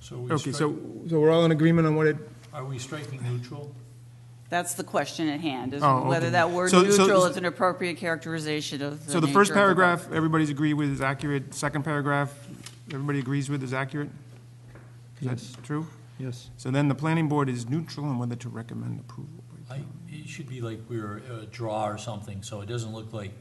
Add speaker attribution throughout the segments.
Speaker 1: So we
Speaker 2: Okay, so,
Speaker 1: strike-
Speaker 2: so we're all in agreement on what it,
Speaker 1: Are we striking neutral?
Speaker 3: That's the question at hand, is
Speaker 2: Oh,
Speaker 3: whether
Speaker 2: okay.
Speaker 3: that word
Speaker 2: So- so-
Speaker 3: neutral is an appropriate characterization of the
Speaker 2: so the
Speaker 3: nature
Speaker 2: first
Speaker 3: of vote.
Speaker 2: paragraph, everybody's agree with is accurate, second paragraph, everybody agrees with is accurate? That's true?
Speaker 4: Yes.
Speaker 2: So then the planning board is neutral on whether to recommend approval.
Speaker 1: I, it should be like we're a draw or something, so it doesn't look like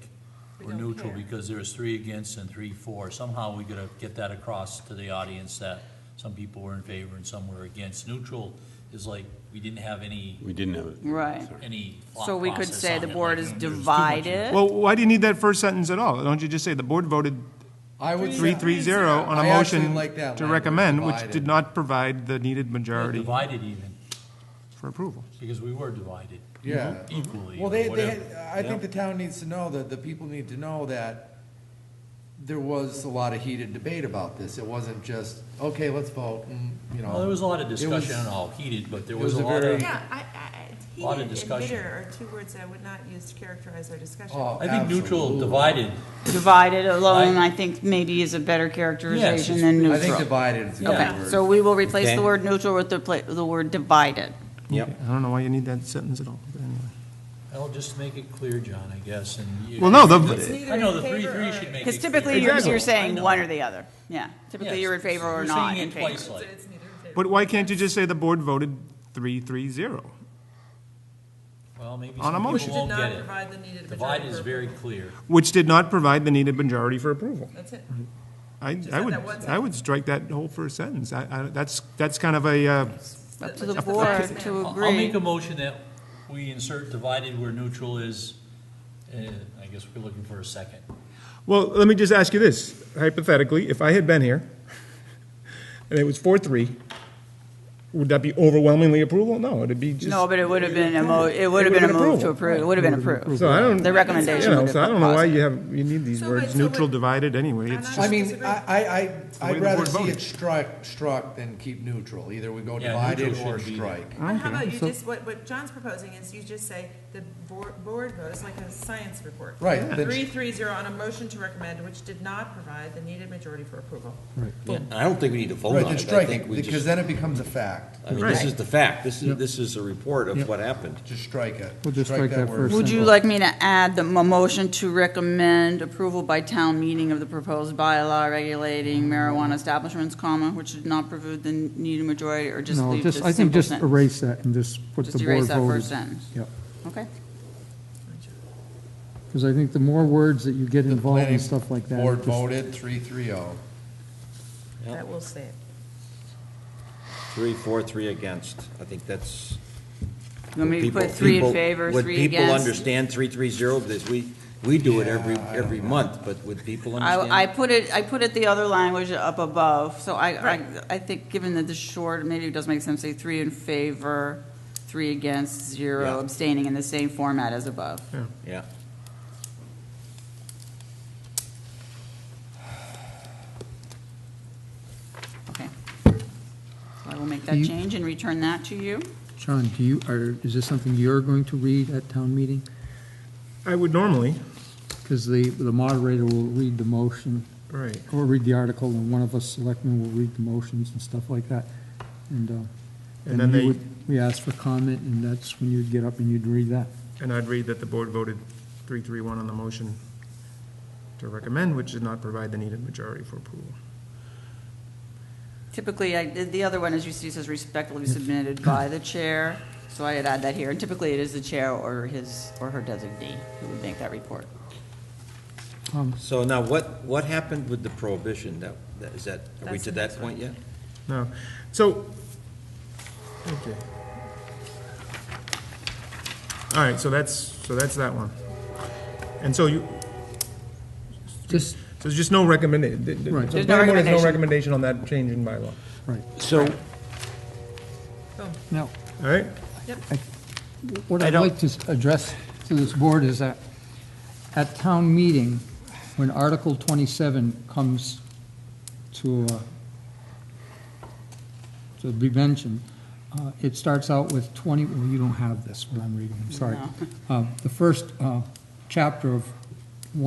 Speaker 1: we're neutral because there's three against and three for. Somehow we gotta get that across to the audience that some people were in favor and some were against. Neutral is like, we didn't have any,
Speaker 5: We didn't have it.
Speaker 3: Right.
Speaker 1: any thought
Speaker 3: So we could
Speaker 1: process
Speaker 3: say
Speaker 1: on
Speaker 3: the
Speaker 1: it,
Speaker 3: board
Speaker 1: like,
Speaker 3: is
Speaker 1: there's too much-
Speaker 3: divided.
Speaker 2: Well, why do you need that first sentence at all? Don't you just say the board voted
Speaker 4: I would,
Speaker 2: three, three, zero on a
Speaker 4: I actually
Speaker 2: motion
Speaker 4: like that
Speaker 2: to
Speaker 4: language,
Speaker 2: recommend, which did
Speaker 4: divided.
Speaker 2: not provide the needed majority
Speaker 1: Divided even,
Speaker 2: for approval?
Speaker 1: because we were divided
Speaker 4: yeah.
Speaker 1: equally
Speaker 4: Well,
Speaker 1: or
Speaker 4: they, they,
Speaker 1: whatever.
Speaker 4: I think the town needs to know, that the people need to know that there was a lot of heated debate about this. It wasn't just, okay, let's vote, and, you know.
Speaker 1: Well, there was a lot of
Speaker 4: um, It was-
Speaker 1: discussion and all heated, but there
Speaker 4: it
Speaker 1: was
Speaker 4: was
Speaker 1: a
Speaker 4: a
Speaker 1: lot
Speaker 4: very-
Speaker 1: of,
Speaker 6: Yeah, I, I,
Speaker 1: Lot of
Speaker 6: I- heated and
Speaker 1: discussion.
Speaker 6: bitter are two words I would not use to characterize our discussion.
Speaker 4: Oh,
Speaker 1: I think neutral,
Speaker 4: absolutely.
Speaker 1: divided,
Speaker 3: Divided alone,
Speaker 1: I-
Speaker 3: I think maybe is a better characterization
Speaker 1: it's-
Speaker 3: than
Speaker 4: I think
Speaker 3: neutral.
Speaker 4: divided is a good
Speaker 3: Okay,
Speaker 4: word.
Speaker 3: so we will replace
Speaker 7: Okay.
Speaker 3: the word neutral with the pla- the word divided.
Speaker 7: Yep.
Speaker 2: I don't know why you need that sentence at all, but anyway.
Speaker 1: I'll just make it clear, John, I guess, and you.
Speaker 2: Well, no, the,
Speaker 1: I know, the three, three should make it.
Speaker 3: Because
Speaker 1: clear.
Speaker 3: typically you're,
Speaker 2: Exactly.
Speaker 3: you're saying one or the other, yeah. Typically
Speaker 1: Yes.
Speaker 3: you're in favor or
Speaker 1: You're
Speaker 3: not
Speaker 1: saying
Speaker 3: in
Speaker 1: it
Speaker 3: favor.
Speaker 1: twice, like,
Speaker 2: but why can't you just say the board voted three, three, zero?
Speaker 1: Well, maybe
Speaker 2: On a
Speaker 1: some
Speaker 2: motion.
Speaker 1: people won't get it.
Speaker 6: provide the needed
Speaker 1: Divide is very clear.
Speaker 2: Which did not provide the needed majority for approval.
Speaker 6: That's it.
Speaker 2: I, I
Speaker 6: add
Speaker 2: would,
Speaker 6: that one
Speaker 2: I would strike that whole first sentence. I, I, that's, that's kind of a, uh,
Speaker 3: Up to the
Speaker 6: Up to the
Speaker 3: board
Speaker 6: president.
Speaker 3: to
Speaker 1: I'll I'll make
Speaker 3: agree.
Speaker 1: a motion that we insert divided where neutral is, uh, I guess we're looking for a second.
Speaker 2: well, let me just ask you this. Hypothetically, if I had been here and it was four, three, would that be overwhelmingly approval? No, it'd be just.
Speaker 3: No, but it would have been a mo, it would
Speaker 2: would've
Speaker 3: have been a
Speaker 2: been
Speaker 3: move to
Speaker 2: approval.
Speaker 3: approve, it would have been approved.
Speaker 2: So I don't.
Speaker 3: The
Speaker 2: You
Speaker 3: recommendation
Speaker 2: know,
Speaker 3: would have
Speaker 2: so I
Speaker 3: been
Speaker 2: don't know why
Speaker 3: positive.
Speaker 2: you have, you need these
Speaker 6: So
Speaker 2: words,
Speaker 6: wait, so
Speaker 2: neutral,
Speaker 6: wait.
Speaker 2: divided, anyway. It's
Speaker 6: I'm
Speaker 2: just.
Speaker 6: not-
Speaker 4: I mean,
Speaker 6: disagree.
Speaker 4: I, I, I-
Speaker 2: the way
Speaker 4: I'd
Speaker 2: the
Speaker 4: rather
Speaker 2: board
Speaker 4: see
Speaker 2: voted.
Speaker 4: it struck, struck than keep neutral. Either we go
Speaker 1: Yeah,
Speaker 4: divided
Speaker 1: neutral
Speaker 4: or
Speaker 1: should be-
Speaker 4: strike.
Speaker 6: But how about you
Speaker 2: so-
Speaker 6: just, what, what John's proposing is you just say the board, board vote, it's like a science report.
Speaker 4: Right, then-
Speaker 6: Three, three, zero on a motion to recommend, which did not provide the needed majority for approval.
Speaker 7: Yeah, I don't think we need to vote
Speaker 4: Right,
Speaker 7: on
Speaker 4: then
Speaker 7: it. I
Speaker 4: strike
Speaker 7: think
Speaker 4: it,
Speaker 7: we
Speaker 4: because
Speaker 7: just,
Speaker 4: then it becomes a fact.
Speaker 7: I mean, this
Speaker 3: Right.
Speaker 7: is the fact. This is, this is a report of what happened.
Speaker 4: Just strike it.
Speaker 8: We'll just strike that
Speaker 4: word.
Speaker 8: first
Speaker 3: Would you like me to add the m- motion to recommend approval by town meeting of the proposed bylaw regulating marijuana establishments, comma, which did not preclude the needed majority, or just
Speaker 8: No,
Speaker 3: leave this
Speaker 8: just,
Speaker 3: simple
Speaker 8: I think just
Speaker 3: sentence?
Speaker 8: erase that and just put
Speaker 3: Just
Speaker 8: the board
Speaker 3: erase that
Speaker 8: voted.
Speaker 3: first sentence,
Speaker 8: Yep,
Speaker 3: okay?
Speaker 8: because I think the more words that you get
Speaker 4: The
Speaker 8: involved
Speaker 4: planning
Speaker 8: in stuff like that.
Speaker 4: Board
Speaker 8: just-
Speaker 4: voted three, three, oh.
Speaker 6: That will say it.
Speaker 7: Three, for, three against. I think that's.
Speaker 3: You want me to
Speaker 7: people-
Speaker 3: put three in
Speaker 7: people-
Speaker 3: favor, three
Speaker 7: Would people
Speaker 3: against?
Speaker 7: understand three, three, zero? This, we, we do it every,
Speaker 4: Yeah, I
Speaker 7: every month, but would people understand?
Speaker 3: I, I put it, I put it the other language up above, so I, I, I think, given that the short, maybe it does make sense, to say three in favor, three against, zero
Speaker 7: Yeah.
Speaker 3: abstaining in the same format as above.
Speaker 7: Yeah.
Speaker 3: Okay. So I will make that
Speaker 8: You-
Speaker 3: change and return that to you.
Speaker 8: John, do you, are, is this something you're going to read at town meeting?
Speaker 2: I would normally.
Speaker 8: Because the, the moderator will read the motion,
Speaker 2: Right.
Speaker 8: or read the article, and one of us selectmen will read the motions and stuff like that. And, uh,
Speaker 2: And
Speaker 8: then
Speaker 2: then
Speaker 8: you
Speaker 2: they,
Speaker 8: would, we ask for comment, and that's when you'd get up and you'd read that.
Speaker 2: and I'd read that the board voted three, three, one on the motion to recommend, which did not provide the needed majority for approval.
Speaker 3: Typically, I, did- the other one, as you see, says respectively submitted by the chair, so I'd add that here. And typically, it is the chair or his, or her designee who would make that report.
Speaker 8: Um,
Speaker 7: So now what, what happened with the prohibition? That, that- is that, are we
Speaker 6: That's
Speaker 7: to
Speaker 6: the
Speaker 7: that
Speaker 6: next
Speaker 7: point yet?
Speaker 2: No, so, okay. All right, so that's, so that's that one. And so you,
Speaker 8: Just,
Speaker 2: so there's just no recommended, the- the-
Speaker 8: Right.
Speaker 2: the
Speaker 3: There's no
Speaker 2: planning board has no
Speaker 3: recommendation.
Speaker 2: recommendation on that change in bylaw,
Speaker 8: right,
Speaker 7: So,
Speaker 8: now,
Speaker 2: all right?
Speaker 8: What
Speaker 7: I
Speaker 8: I'd
Speaker 7: don't-
Speaker 8: like to s- address to this board is that at town meeting, when Article 27 comes to, uh, to be mentioned, uh, it starts out with 20, well, you don't have this, what I'm reading, I'm sorry. Uh, The first uh, chapter of